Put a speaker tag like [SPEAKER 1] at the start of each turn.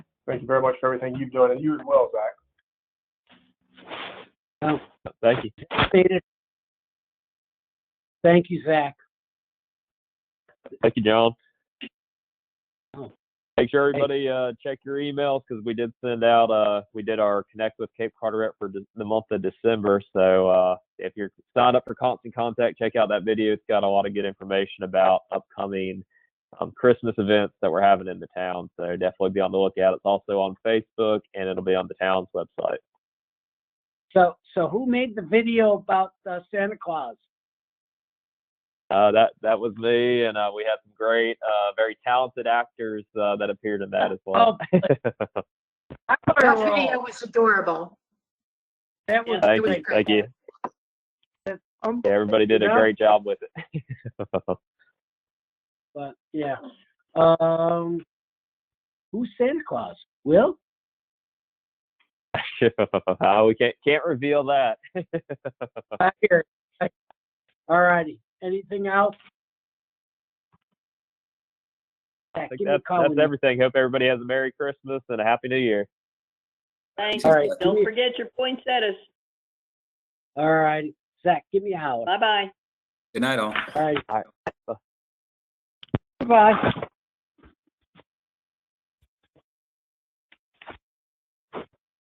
[SPEAKER 1] Thank you very much for everything you've done, and you as well, Zach.
[SPEAKER 2] Thank you.
[SPEAKER 3] Appreciate it. Thank you, Zach.
[SPEAKER 2] Thank you, John.
[SPEAKER 3] Oh.
[SPEAKER 2] Make sure everybody uh, check your emails because we did send out uh, we did our connect with Cape Carteret for de- the month of December. So uh, if you're signed up for Constant Contact, check out that video. It's got a lot of good information about upcoming um, Christmas events that we're having in the town. So definitely be on the lookout. It's also on Facebook and it'll be on the town's website.
[SPEAKER 3] So, so who made the video about uh, Santa Claus?
[SPEAKER 2] Uh, that that was me, and uh, we had some great, uh, very talented actors uh, that appeared in that as
[SPEAKER 3] Oh,
[SPEAKER 2] well.
[SPEAKER 3] I thought
[SPEAKER 4] That
[SPEAKER 3] it
[SPEAKER 4] video
[SPEAKER 3] was-
[SPEAKER 4] was adorable.
[SPEAKER 3] That was um,
[SPEAKER 2] thank
[SPEAKER 4] was
[SPEAKER 2] you,
[SPEAKER 3] great.
[SPEAKER 4] great.
[SPEAKER 2] thank you. Yeah, everybody did a
[SPEAKER 3] Yeah.
[SPEAKER 2] great job with it.
[SPEAKER 3] But yeah, um, who's Santa Claus? Will?
[SPEAKER 2] Uh, we can't can't reveal that. Uh.
[SPEAKER 3] I hear. it. All righty. Anything else?
[SPEAKER 2] I
[SPEAKER 3] Zach,
[SPEAKER 2] think
[SPEAKER 3] give me a
[SPEAKER 2] that's,
[SPEAKER 3] call
[SPEAKER 2] that's
[SPEAKER 3] when you-
[SPEAKER 2] everything. Hope everybody has a Merry Christmas and a Happy New Year.
[SPEAKER 5] Thanks.
[SPEAKER 3] All right, give me-
[SPEAKER 5] Don't forget your poinsettias.
[SPEAKER 3] All righty. Zach, give me a holler.
[SPEAKER 5] Bye-bye.
[SPEAKER 6] Good night, all.
[SPEAKER 3] All right.
[SPEAKER 2] All
[SPEAKER 3] Bye.